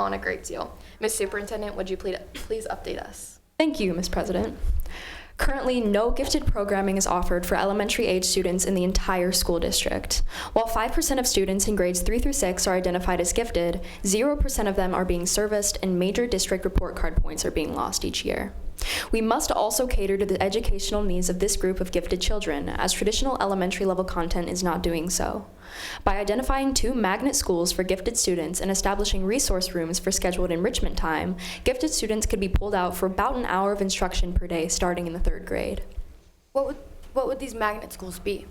on a great deal. Ms. Superintendent, would you please, please update us? Thank you, Ms. President. Currently, no gifted programming is offered for elementary age students in the entire school district. While 5% of students in grades 3 through 6 are identified as gifted, 0% of them are being serviced and major district report card points are being lost each year. We must also cater to the educational needs of this group of gifted children, as traditional elementary level content is not doing so. By identifying two magnet schools for gifted students and establishing resource rooms for scheduled enrichment time, gifted students could be pulled out for about an hour of instruction per day starting in the third grade. What would, what would these magnet schools be?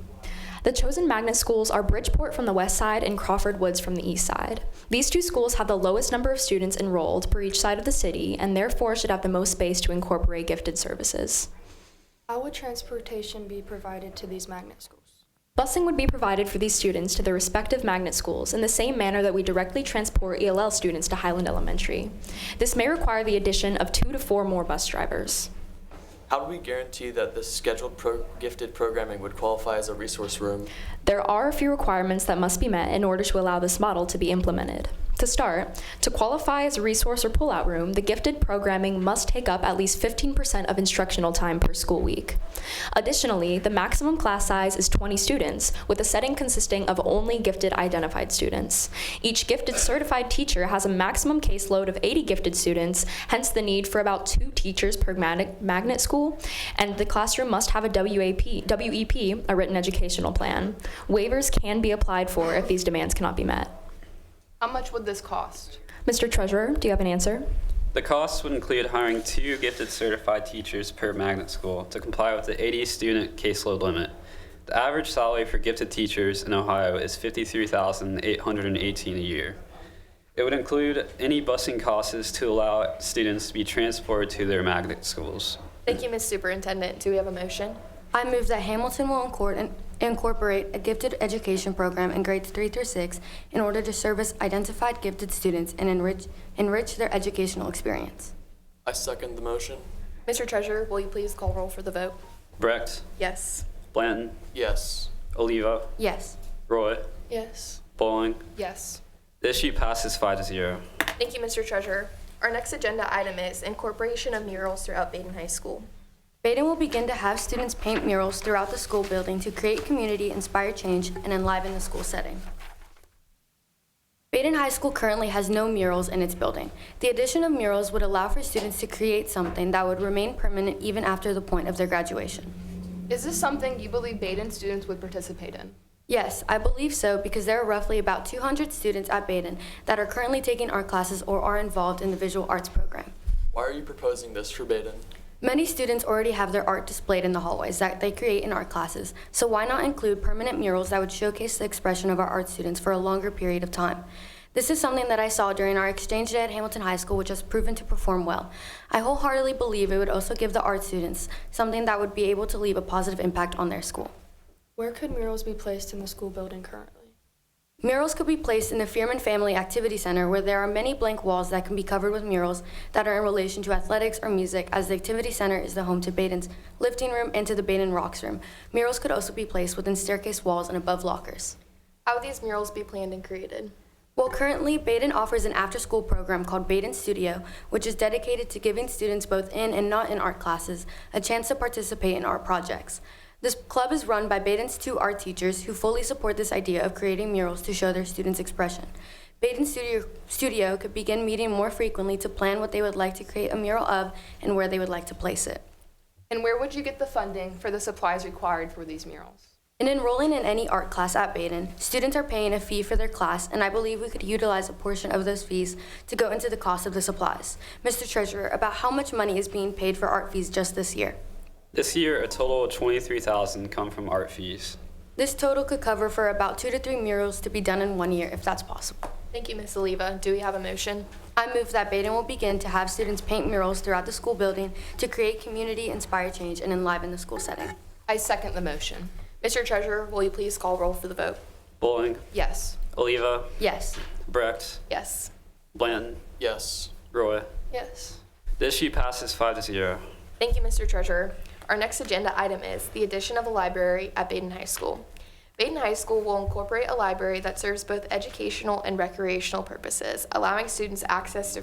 The chosen magnet schools are Bridgeport from the west side and Crawford Woods from the east side. These two schools have the lowest number of students enrolled per each side of the city and therefore should have the most space to incorporate gifted services. How would transportation be provided to these magnet schools? Busing would be provided for these students to their respective magnet schools in the same manner that we directly transport ELL students to Highland Elementary. This may require the addition of two to four more bus drivers. How do we guarantee that this scheduled pro- gifted programming would qualify as a resource room? There are a few requirements that must be met in order to allow this model to be implemented. To start, to qualify as a resource or pullout room, the gifted programming must take up at least 15% of instructional time per school week. Additionally, the maximum class size is 20 students, with a setting consisting of only gifted identified students. Each gifted certified teacher has a maximum caseload of 80 gifted students, hence the need for about two teachers per magnet, magnet school, and the classroom must have a WAP, WEP, a written educational plan. Waivers can be applied for if these demands cannot be met. How much would this cost? Mr. Treasurer, do you have an answer? The costs would include hiring two gifted certified teachers per magnet school to comply with the 80 student caseload limit. The average salary for gifted teachers in Ohio is $53,818 a year. It would include any busing costs to allow students to be transported to their magnet schools. Thank you, Ms. Superintendent. Do we have a motion? I move that Hamilton will incor- incorporate a gifted education program in grades three through six in order to service identified gifted students and enrich, enrich their educational experience. I second the motion. Mr. Treasurer, will you please call roll for the vote? Brecht, Yes. Blanton, Yes. Oliva, Yes. Roy, Yes. Bowling. Yes. The issue passes 5 to 0. Thank you, Mr. Treasurer. Our next agenda item is incorporation of murals throughout Baden High School. Baden will begin to have students paint murals throughout the school building to create community, inspire change, and enliven the school setting. Baden High School currently has no murals in its building. The addition of murals would allow for students to create something that would remain permanent even after the point of their graduation. Is this something you believe Baden students would participate in? Yes, I believe so because there are roughly about 200 students at Baden that are currently taking art classes or are involved in the visual arts program. Why are you proposing this for Baden? Many students already have their art displayed in the hallways that they create in art classes, so why not include permanent murals that would showcase the expression of our art students for a longer period of time? This is something that I saw during our exchange day at Hamilton High School, which has proven to perform well. I wholeheartedly believe it would also give the art students something that would be able to leave a positive impact on their school. Where could murals be placed in the school building currently? Murals could be placed in the Fearman Family Activity Center where there are many blank walls that can be covered with murals that are in relation to athletics or music as the Activity Center is the home to Baden's lifting room and to the Baden Rocks room. Murals could also be placed within staircase walls and above lockers. How would these murals be planned and created? Well, currently, Baden offers an after school program called Baden Studio, which is dedicated to giving students both in and not in art classes a chance to participate in art projects. This club is run by Baden's two art teachers who fully support this idea of creating murals to show their students' expression. Baden Studio, Studio could begin meeting more frequently to plan what they would like to create a mural of and where they would like to place it. And where would you get the funding for the supplies required for these murals? In enrolling in any art class at Baden, students are paying a fee for their class, and I believe we could utilize a portion of those fees to go into the cost of the supplies. Mr. Treasurer, about how much money is being paid for art fees just this year? This year, a total of 23,000 come from art fees. This total could cover for about two to three murals to be done in one year if that's possible. Thank you, Ms. Oliva. Do we have a motion? I move that Baden will begin to have students paint murals throughout the school building to create community, inspire change, and enliven the school setting. I second the motion. Mr. Treasurer, will you please call roll for the vote? Bowling, Yes. Oliva, Yes. Brecht, Yes. Blanton, Yes. Roy. Yes. The issue passes five to zero. Thank you, Mr. Treasurer. Our next agenda item is the addition of a library at Baden High School. Baden High School will incorporate a library that serves both educational and recreational purposes, allowing students access to